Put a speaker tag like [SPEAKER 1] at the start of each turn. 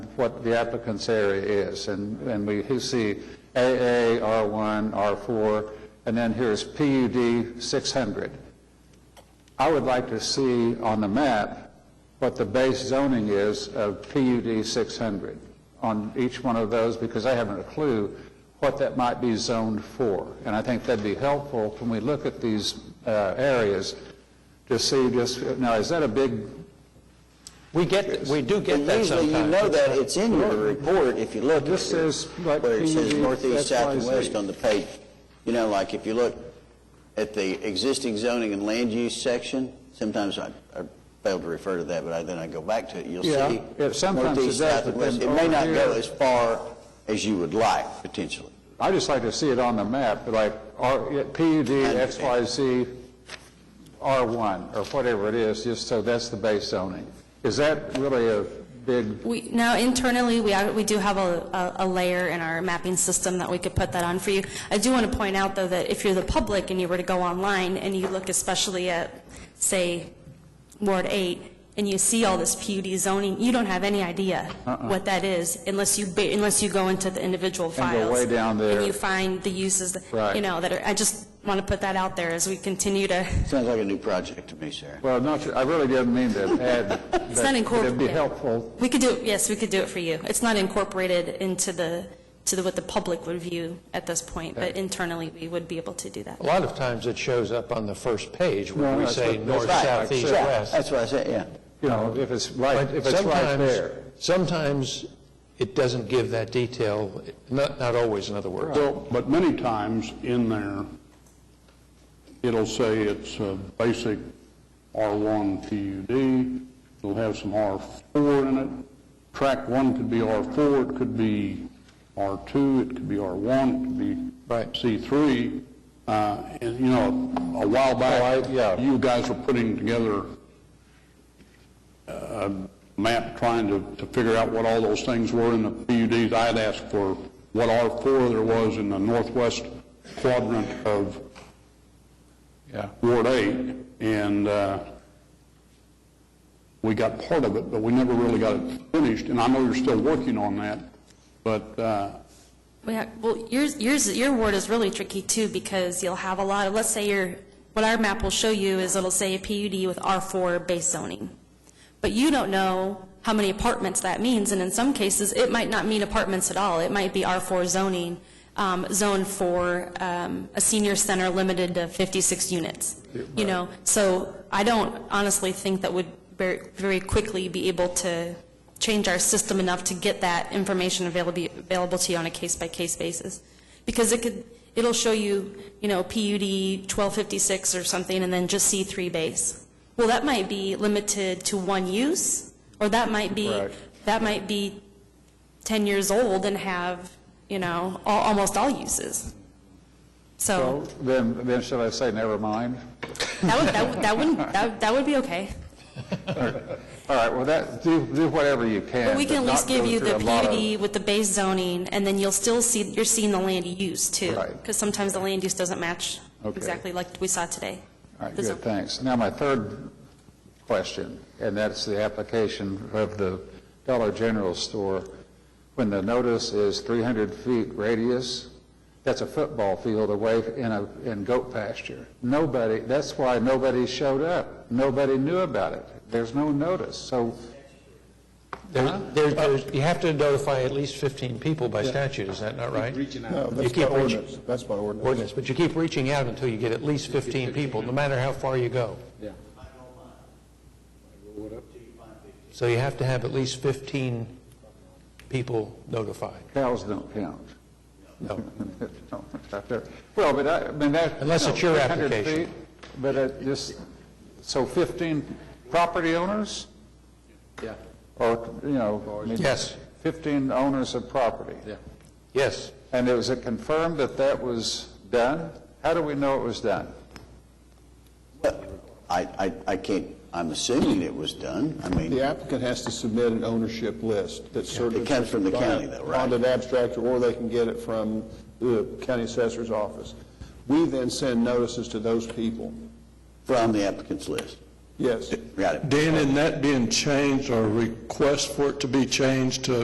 [SPEAKER 1] what the applicant's area is. And, and we see AA, R1, R4, and then here's PUD 600. I would like to see on the map what the base zoning is of PUD 600 on each one of those, because I haven't a clue what that might be zoned for. And I think that'd be helpful when we look at these uh, areas to see just, now, is that a big,
[SPEAKER 2] We get, we do
[SPEAKER 3] But
[SPEAKER 2] get that
[SPEAKER 3] usually you know
[SPEAKER 2] sometimes.
[SPEAKER 3] that, it's in your report if you look. at
[SPEAKER 1] This
[SPEAKER 3] it,
[SPEAKER 1] is like
[SPEAKER 3] Where it says
[SPEAKER 1] PUD,
[SPEAKER 3] northeast, south, and
[SPEAKER 1] XYZ.
[SPEAKER 3] west on the page. You know, like if you look at the existing zoning and land use section, sometimes I I fail to refer to that, but I- then I go back to it, you'll see.
[SPEAKER 1] Yeah, it- sometimes it
[SPEAKER 3] northeast,
[SPEAKER 1] does,
[SPEAKER 3] south, and
[SPEAKER 1] but
[SPEAKER 3] west.
[SPEAKER 1] then
[SPEAKER 3] It may
[SPEAKER 1] over
[SPEAKER 3] not go
[SPEAKER 1] here-
[SPEAKER 3] as far as you would like, potentially.
[SPEAKER 1] i just like to see it on the map, like R- PUD, XYZ, R1, or whatever it is, just so that's the base zoning. Is that really a big
[SPEAKER 4] We, now internally, we, are- we do have a, a a layer in our mapping system that we could put that on for you. I do want to point out, though, that if you're the public and you were to go online and you look especially at, say, Ward 8, and you see all this PUD zoning, you don't have any idea what that is unless you, ba- unless you go into the individual
[SPEAKER 1] Uh-uh. And
[SPEAKER 4] files.
[SPEAKER 1] go way down there.
[SPEAKER 4] And you find the uses, that-
[SPEAKER 1] Right.
[SPEAKER 4] you know, that are, I just want to put that out there as we continue to,
[SPEAKER 3] Sounds like a new project to me, Sarah.
[SPEAKER 1] Well, not, I really didn't mean to add.
[SPEAKER 4] It's not incorporated.
[SPEAKER 1] It'd be helpful.
[SPEAKER 4] We could do, it. yes, we could do it for you. It's not incorporated into the, to the- what the public would view at this point, but internally, we would be able to do that.
[SPEAKER 2] A lot of times it shows up on the first page
[SPEAKER 1] No,
[SPEAKER 2] where we
[SPEAKER 1] that's
[SPEAKER 2] say
[SPEAKER 1] what-
[SPEAKER 2] north,
[SPEAKER 1] that's
[SPEAKER 2] south,
[SPEAKER 1] right.
[SPEAKER 2] east,
[SPEAKER 3] Yeah,
[SPEAKER 2] west.
[SPEAKER 3] That's what I said, yeah.
[SPEAKER 1] You know, if it's right,
[SPEAKER 2] But
[SPEAKER 1] if it's right
[SPEAKER 2] sometimes-
[SPEAKER 1] there.
[SPEAKER 2] Sometimes it doesn't give that detail, not, not always, in other words.
[SPEAKER 5] Well, but many times in there, it'll say it's a basic R1 PUD, it'll have some R4 in it. Track 1 could be R4, it could be R2, it could be R1, it could be
[SPEAKER 2] Right.
[SPEAKER 5] C3. Uh, And, you know, a while back,
[SPEAKER 1] I- yeah.
[SPEAKER 5] you guys were putting together map trying to, to figure out what all those things were in the PUDs. I had asked for what R4 there was in the northwest quadrant of
[SPEAKER 1] Yeah.
[SPEAKER 5] Ward 8, and uh, we got part of it, but we never really got it finished, and I know you're still working on that, but uh,
[SPEAKER 4] We have, well, yours, yours, your ward is really tricky too, because you'll have a lot of, let's say your, what our map will show you is it'll say a PUD with R4 base zoning. But you don't know how many apartments that means, and in some cases, it might not mean apartments at all. It might be R4 zoning, um, zone for, um, a senior center limited to 56 units, you know? So I don't honestly think that would very, very quickly be able to change our system enough to get that information available, available to you on a case-by-case basis. Because it could, it'll show you, you know, PUD 1256 or something, and then just C3 base. Well, that might be limited to one use, or that might be,
[SPEAKER 1] Right.
[SPEAKER 4] that might be 10 years old and have, you know, al- almost all uses. So
[SPEAKER 1] So then, then should I say never mind?
[SPEAKER 4] Oh. that would, that would- that wouldn't, that would- that would be okay.
[SPEAKER 1] All right, well, that, do, do whatever you can.
[SPEAKER 4] But we can at least
[SPEAKER 1] not
[SPEAKER 4] give
[SPEAKER 1] go
[SPEAKER 4] you
[SPEAKER 1] through a
[SPEAKER 4] the
[SPEAKER 1] lot of-
[SPEAKER 4] PUD with the base zoning, and then you'll still see, you're seeing the land use too.
[SPEAKER 1] Right.
[SPEAKER 4] Because sometimes the land use doesn't match
[SPEAKER 1] Okay.
[SPEAKER 4] exactly like we saw today.
[SPEAKER 1] All right,
[SPEAKER 4] The zone.
[SPEAKER 1] good, thanks. Now, my third question, and that's the application of the Dollar General store. When the notice is 300 feet radius, that's a football field away in a, in goat pasture. Nobody, that's why nobody showed up. Nobody knew about it. There's no notice. So
[SPEAKER 2] There- there- there's- You have to notify at least 15 people by statute, is that not right? Reaching
[SPEAKER 6] No,
[SPEAKER 2] You
[SPEAKER 6] that's by
[SPEAKER 2] keep reaching-
[SPEAKER 6] ordinance, that's by ordinance.
[SPEAKER 2] Ordinance, but you keep reaching out until you get at least 15 people, no matter how far you go. Yeah. So you have to have at least 15 people notified.
[SPEAKER 1] cows don't count.
[SPEAKER 2] No.
[SPEAKER 1] No, not there. Well, but I, I mean, that.
[SPEAKER 2] Unless
[SPEAKER 1] no,
[SPEAKER 2] it's your
[SPEAKER 1] 300
[SPEAKER 2] application.
[SPEAKER 1] feet, But it just, so 15 property owners?
[SPEAKER 6] Yeah.
[SPEAKER 1] Or, you know. I mean,
[SPEAKER 2] Yes.
[SPEAKER 1] 15 owners of property.
[SPEAKER 6] Yeah.
[SPEAKER 2] Yes.
[SPEAKER 1] And it was it confirmed that that was done? How do we know it was done?
[SPEAKER 3] I, I, I can't, I'm assuming it was done. I mean,
[SPEAKER 6] The applicant has to submit an ownership list that's certified.
[SPEAKER 3] It comes from the county, though, right?
[SPEAKER 6] Bonded abstract, or they can get it from the county assessor's office. We then send notices to those people.
[SPEAKER 3] from the applicant's list.
[SPEAKER 6] Yes.
[SPEAKER 3] Got it.
[SPEAKER 7] Dan, in that being changed, or request for it to be changed to